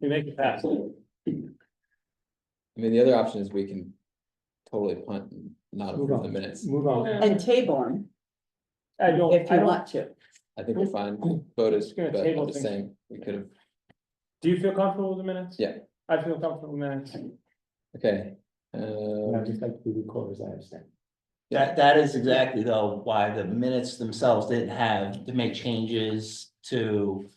we make it pass. I mean, the other option is we can totally punt and not Move approve the on, minutes. move on. Yeah. And table them I don't, if I you don't, want to. I think we're fine, voters, Just gonna but I'm table just things. saying, we could have, do you feel comfortable with the minutes? Yeah. I feel comfortable with minutes. okay. Uh, just like the recorders, I understand. That, that is exactly though why the minutes themselves didn't have to make changes to.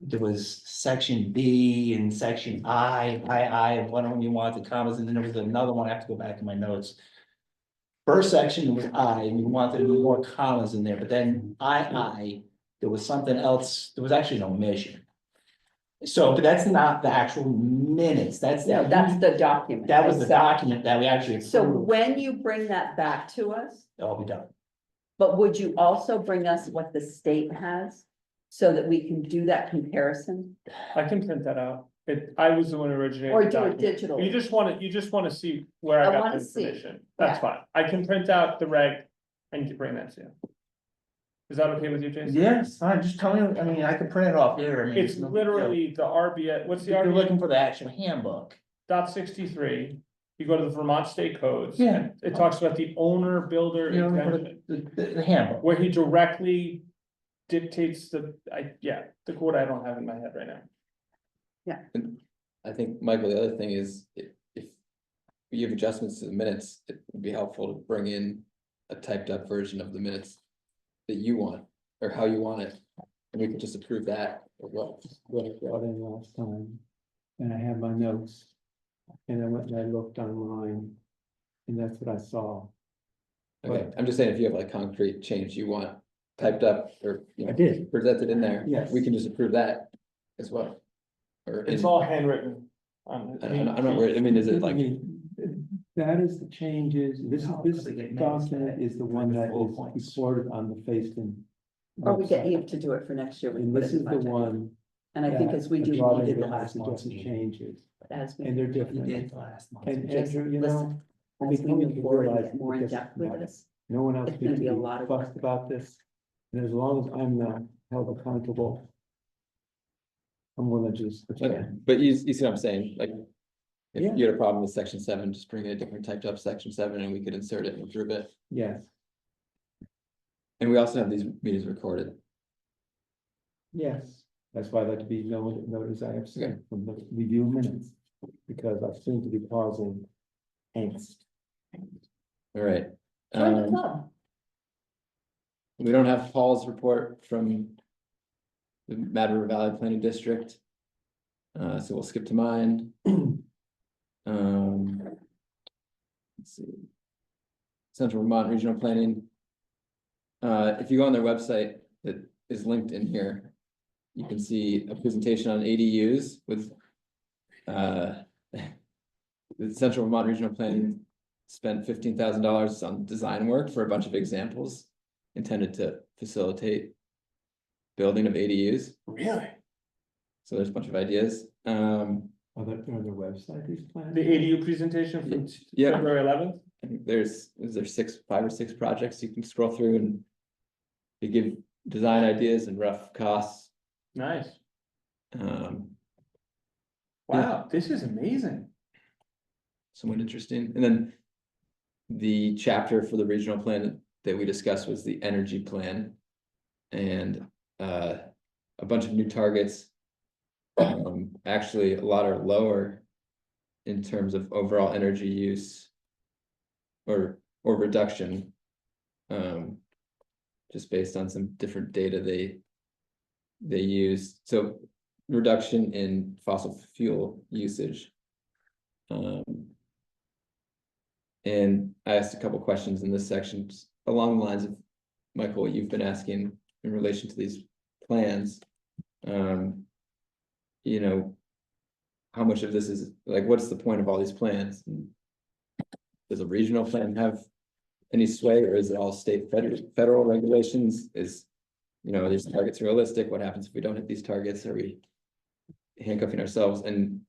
There was section B and section I, I, I, and one of them you wanted the commas, and then there was another one, I have to go back in my notes. First section was I, and you wanted more commas in there, but then I, I, there was something else, there was actually no omission. So, but that's not the actual minutes, that's, No, that's the document. that was the itself. document that we actually So approved, when you bring that back to us, that'll be done. but would you also bring us what the state has? So that we can do that comparison I can print that out. It, I was the one originating. or the do it document. digital? You just wanna, you just wanna see where I I got the wanna see. information. That's fine. I can print out the reg and you bring that to you. Is that okay with you, Jason? Yes, I just tell me, I mean, I could print it off here, I mean. It's no big literally the RBA, what's deal. If the RBA you're looking for the actual handbook, dot sixty-three? You go to the Vermont State Codes. Yeah. It talks about the owner builder you know, for exemption, the- the, the- the handbook, where he directly dictates the, I, yeah, the quote I don't have in my head right now. I think, Michael, the other thing is, i- if you have adjustments to the minutes, it would be helpful to bring in a typed up version of the minutes that you want, or how you want it, and we could just approve that, or what, What I brought in last time, and I had my notes. And I went and I looked online, and that's what I saw. okay, I'm just saying, if you have like concrete change you want typed up, or, you know, did. presented in there, Yes. we can just approve that as well. Or, in- It's all handwritten. um, I don't- I'm not worried, I mean, is it like? That is the changes, this, No, 'cause this they get notes document that- is the one that full is points. recorded on the Facein. Or Oh, we get website. Eve to do it for next year. we And put it this in is the budget. one. And I think as we that do, brought we in did the the last one. suggested Changes, As we- and they're you different, did the last month. and Just Andrew, you know, listen, As we became move forward, and realized get more in because depth with not- this. no one else It's gonna needs be a to lot be of fussed work. about this, and as long as I'm not held accountable. I'm gonna just. Okay, But you, you see what I'm saying, like. Yeah. If you had a problem with section seven, just bring in a different typed up section seven and we could insert it and approve it. Yes, And we also have these meetings recorded. yes, that's why I'd like to be known, noticed I Okay. abstain from the review minutes, because I seem to be causing angst. All right. Join the Um, club. we don't have Paul's report from. The Mad River Valley Planning District. Uh, so we'll skip to mine. Um. Let's see. Central Vermont Regional Planning. Uh, if you go on their website that is linked in here. You can see a presentation on ADUs with. Uh. The Central Vermont Regional Planning spent fifteen thousand dollars on design work for a bunch of examples intended to facilitate building of ADUs. Really? So there's a bunch of ideas. Um, Are there, are there website these plans? The ADU presentation from t- Yeah. February eleventh? I think there's, is there six, five or six projects you can scroll through and they give design ideas and rough costs. Nice. Um, Wow, this is amazing. somewhat interesting. And then the chapter for the regional plan that we discussed was the energy plan. And uh, a bunch of new targets. Um, actually, a lot are lower in terms of overall energy use. Or, or reduction. Um, just based on some different data they. They used, so reduction in fossil fuel usage. Um, and I asked a couple questions in this section s- along the lines of, Michael, what you've been asking in relation to these plans. Um, you know, how much of this is, like, what's the point of all these plans? And Does a regional plan have any sway or is it all state federal, federal regulations? Is, you know, are these targets realistic? What happens if we don't hit these targets? Are we handcuffing ourselves? And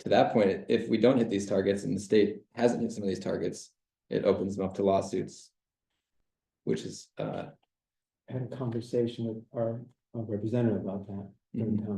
to that point, if we don't hit these targets and the state hasn't hit some of these targets, it opens them up to lawsuits. Which is, uh, Had a conversation with our our representative about that, Mhm. in town